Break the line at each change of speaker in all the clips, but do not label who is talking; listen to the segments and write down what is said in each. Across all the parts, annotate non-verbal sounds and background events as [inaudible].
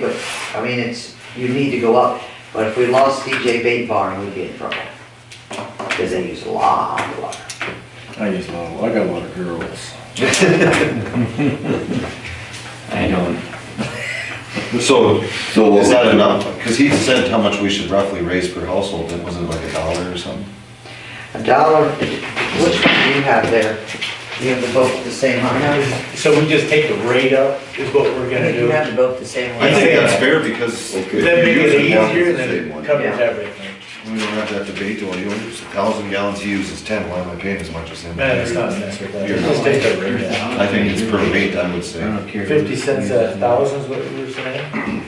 But, I mean, it's, you need to go up, but if we lost DJ Bait Barn, we'd be in trouble. Cause they use a lot of water.
I use a lot, of- I got a lot of
[laughs]
girls.
I don't,
So,
So
is that enough? Because he said how much we should roughly raise per household, and was it like a dollar or something?
A dollar, which one do you have there? You have the both the same on there?
So we just take the rate up, is what we're gonna
You
do?
have the both the same
I
one.
think that's fair because.
That
you
makes
use
it
it once,
easier,
it's
then
the same one.
it
We
covers
Yeah.
everything.
don't have that debate, well, you only use a thousand gallons, he uses ten, why am I paying as much as him?
Man, it's not necessary, but
You're-
just take the rate up.
I think it's per weight, I would
I
say.
don't care.
Fifty cents a thousand is what you were saying?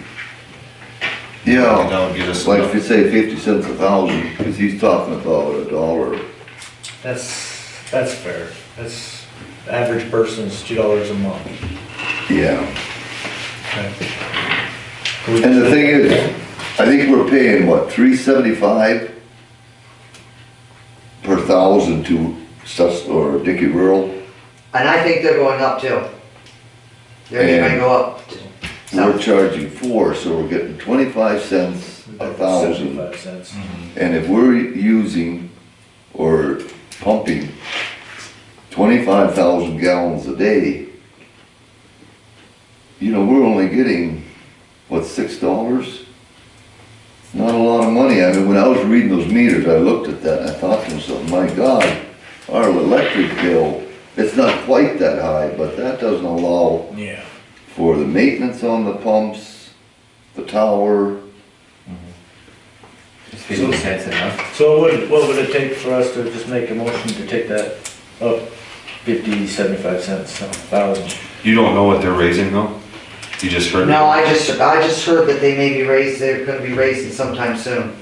Yeah,
That would get us.
it's like if you say fifty cents a thousand, because he's talking about a dollar.
That's, that's fair. That's, the average person's two dollars a month.
Yeah.
Can we-
And the thing is, I think we're paying, what, three seventy-five per thousand to Sus, or Dickey Rural?
And I think they're going up too. They're gonna
And-
go up. to-
We're charging four, so we're getting twenty-five cents a thousand.
Seventy-five cents.
And if we're using or pumping twenty-five thousand gallons a day, you know, we're only getting, what, six dollars? Not a lot of money. I mean, when I was reading those meters, I looked at that and I thought to myself, my God, our electric bill, it's not quite that high, but that doesn't allow
Yeah.
for the maintenance on the pumps, the tower.
is fifty cents enough?
So what would, what would it take for us to just make a motion to take that up fifty, seventy-five cents, a thousand?
You don't know what they're raising though? You just heard.
No, I just, I just heard that they may be raised, they're gonna be raising sometime soon.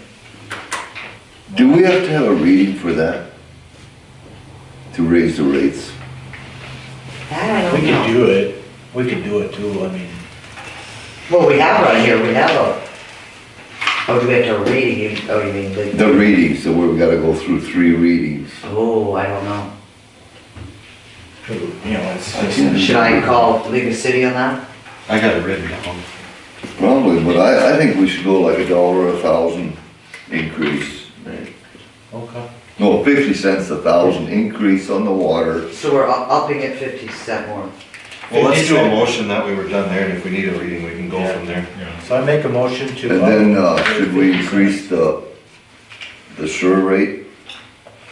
Do we have to have a reading for that? To raise the rates?
I don't
We
know.
could do it. We could do it too, I mean.
Well, we have one here, we have a. Oh, do we have to read it? You- Oh, you mean the.
The readings, so we've gotta go through three readings.
Oh, I don't know.
You know, it's
can't-
just,
Should I call League of City on that?
I got it written down.
Probably, but I, I think we should go like a dollar a thousand increase.
okay.
No, fifty cents a thousand increase on the water.
So we're u- upping at fifty cent more.
Well, let's
Fifty
do a
cent.
motion that way we're done there, and if we need a reading, we can go from there.
So I make a motion to.
And then, uh,
up-
should we increase the, the sure rate?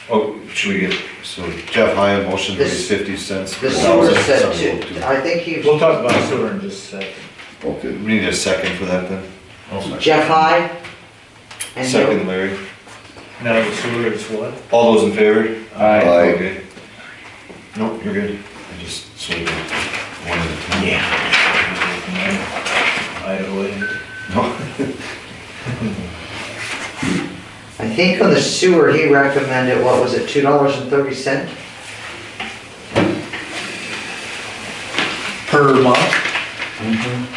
Oh, should we get, so Jeff, high motion to raise fifty cents. per
The sewer
thousand,
said
so we'll
two,
do-
I think he,
We'll talk about sewer in just a second.
Okay,
We need a second for that then.
Jeff High. And he'll-
Second Larry.
Now the sewer is what?
All those in favor?
Aye.
Aye.
Okay. Nope, you're good. I just sort of one at a time.
Yeah. Iowa.
No, [laughs]
I think on the sewer, he recommended, what was it, two dollars and thirty cent?
Per month?
Mm-hmm.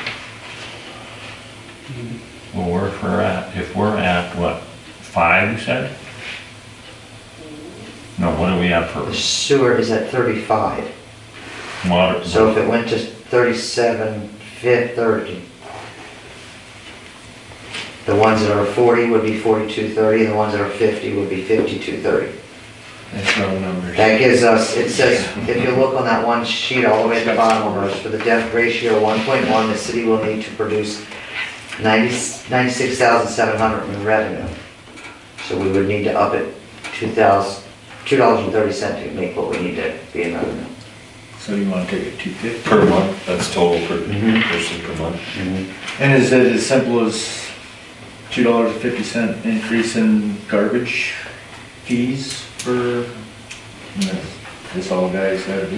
Well, we're, if we're at, if we're at, what, five, you said? No, what are we at for
The sewer is at thirty-five,
water?
so if it went to thirty-seven, fifth, thirty. The ones that are forty would be forty-two, thirty, and the ones that are fifty would be fifty-two, thirty.
That's wrong numbers.
That gives us, it says, if you look on that one sheet all the way at the bottom of us, for the debt ratio one point one, the city will need to produce ninety, ninety-six thousand seven hundred in revenue. So we would need to up it two thousand, two dollars and thirty cent to make what we need to be in revenue.
So you wanna take it two fifty?
per month, that's total per,
Mm-hmm.
person per month.
And is it as simple as two dollars and fifty cent increase in garbage fees for? And that's- That's all guys gotta do?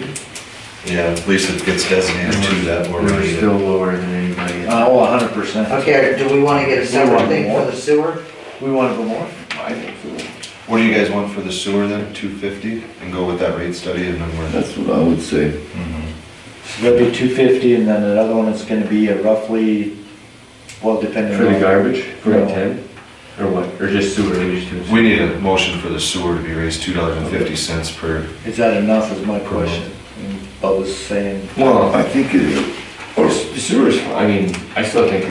Yeah, at least it gets designated to that where we
We're
need
still
it.
lower than anybody. else.
Uh, oh, a hundred percent.
Okay, do we wanna get a separate thing for the sewer?
We wanna go more?
I think so.
What do you guys want for the sewer then, two fifty, and go with that rate study and then we're.
That's what I would say.
So that'd be two fifty and then another one is gonna be a roughly, well, depending on.
For the garbage, for
No.
a ten, or what, or just sewer, we just do.
We need a motion for the sewer to be raised two dollars and fifty cents per,
Is that enough is my question. And Bubba's saying
Well,
I think it is. Or
sewer's, I mean, I still think